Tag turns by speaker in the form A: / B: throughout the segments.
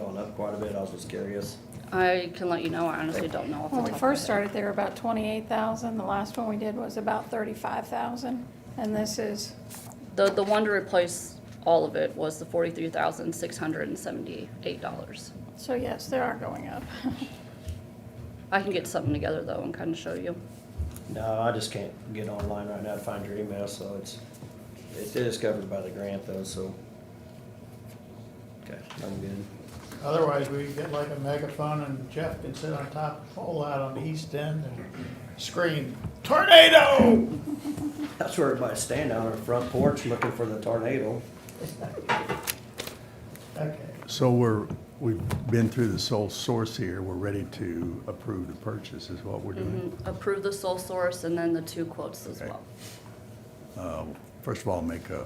A: up quite a bit, I was just curious.
B: I can let you know, I honestly don't know off the
C: When
B: top of
C: we
B: my
C: first
B: head.
C: started, they were about 28,000. The last one we did was about 35,000. And this is,
B: The, the one to replace all of it was the forty-three thousand, six hundred and seventy-eight dollars.
C: so yes, they are going up.
B: I can get something together though and kinda show you.
A: No, I just can't get online right now to find your email, so it's, it is covered by the grant though, so. Okay, I'm good.
D: Otherwise, we get like a megaphone and Jeff can sit on top, fall out on the east end and scream, tornado!
A: That's where everybody's standing on our front porch looking for the tornado.
D: Okay.
E: So we're, we've been through the sole source here, we're ready to approve the purchase is what we're
B: Mm-hmm.
E: doing.
B: Approve the sole source and then the two quotes as
E: Okay.
B: well.
E: Uh, First of all, make a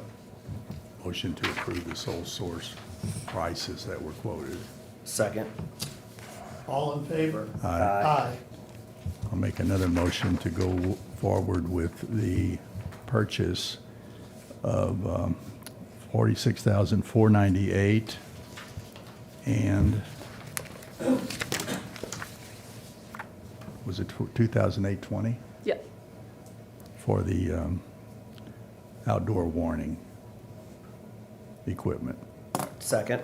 E: motion to approve the sole source prices that were quoted.
A: Second.
D: All in favor?
E: Aye.
D: Aye.
E: I'll make another motion to go forward with the purchase of um, 46,498 and was it 2008-20?
B: Yep,
E: for the um, outdoor warning equipment.
A: Second.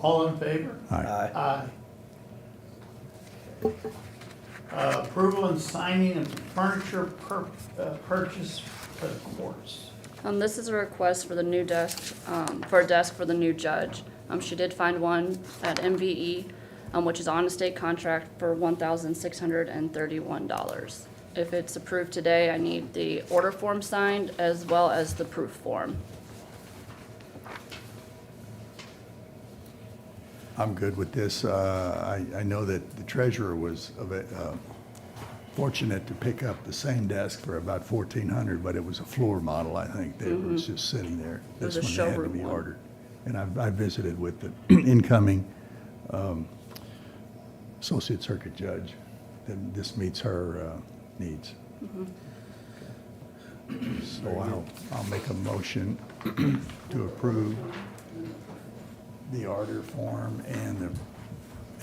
D: All in favor?
E: Aye.
A: Aye.
D: Aye. Uh, Approval and signing of furniture pur- uh, purchase for the courts.
B: um, this is a request for the new desk, um, for a desk for the new judge. Um, she did find one at MVE, um, which is on a state contract for one thousand six hundred and thirty-one dollars. If it's approved today, I need the order form signed as well as the proof form.
E: I'm good with this. Uh, I I know that the treasurer was of it, uh, fortunate to pick up the same desk for about 1,400, but it was a floor model, I think, that was just sitting there.
B: Mm-hmm. It was
E: This
B: a
E: one had to
B: showroom
E: be
B: one.
E: ordered. And I've- I visited with the incoming um, associate circuit judge, and this meets her uh, needs.
B: Mm-hmm.
E: So I'll, I'll make a motion to approve the order form and the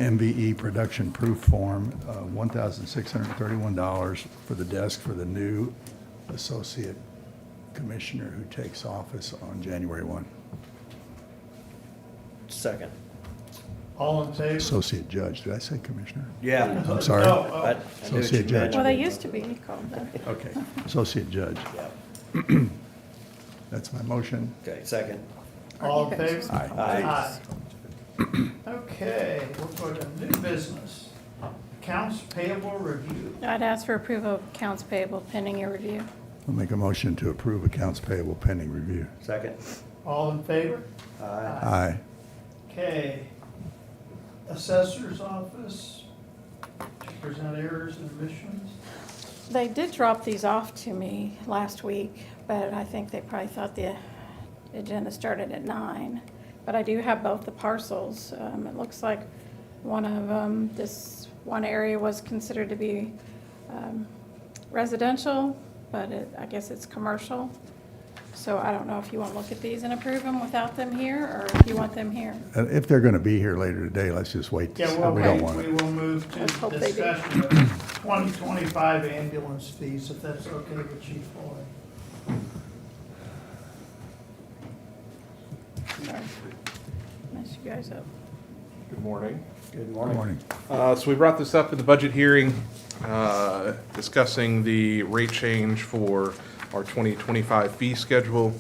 E: MVE production proof form, uh, $1,631 for the desk for the new associate commissioner who takes office on January 1,
A: Second.
D: All in favor?
E: associate judge. Did I say commissioner?
A: Yeah.
E: I'm
D: Oh,
E: sorry.
D: oh.
A: I- I knew
E: So
A: what
E: see a
A: you
E: judge.
A: meant.
C: Well, they used to be called that.
E: Okay, associate judge.
A: Yeah.
E: That's my motion.
A: Okay, second.
D: All in favor?
E: Aye.
A: Aye.
D: Okay, we'll go to new business. Accounts payable review.
C: I'd ask for approval of accounts payable pending your review.
E: I'll make a motion to approve accounts payable pending review.
A: Second.
D: All in favor?
A: Aye.
E: Aye.
D: Okay. Assessor's office to present errors and omissions.
C: They did drop these off to me last week, but I think they probably thought the agenda started at nine. But I do have both the parcels. Um, it looks like one of them, this one area was considered to be, um, residential, but it, I guess it's commercial. So I don't know if you want to look at these and approve them without them here, or if you want them here.
E: And Uh, if they're going to be here later today, let's just wait.
D: Yeah, we'll
E: Uh, We don't
D: wait,
E: want
D: we
E: it.
D: will move
C: Let's
D: to
C: hope they do.
D: discussion of twenty twenty-five ambulance fees, if that's okay with Chief Floyd.
C: Sorry. Mess you guys up.
F: Good morning.
A: Good
E: Good
A: morning.
E: morning.
F: Uh, So we brought this up at the budget hearing, uh, discussing the rate change for our 2025 fee schedule.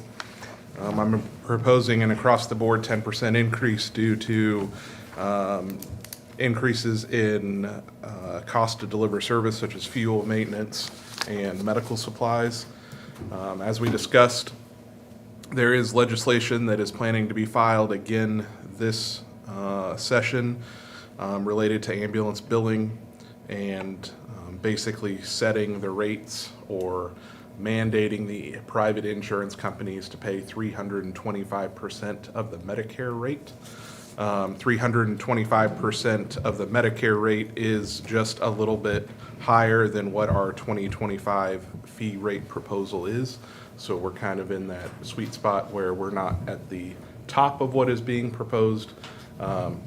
F: Um, I'm proposing an across-the-board 10% increase due to um, increases in uh, cost to deliver service such as fuel, maintenance, and medical supplies. Um, As we discussed, there is legislation that is planning to be filed again this uh, session um, related to ambulance billing and um, basically setting the rates or mandating the private insurance companies to pay 325% of the Medicare rate. Um, 325% of the Medicare rate is just a little bit higher than what our 2025 fee rate proposal is. So we're kind of in that sweet spot where we're not at the top of what is being proposed, um,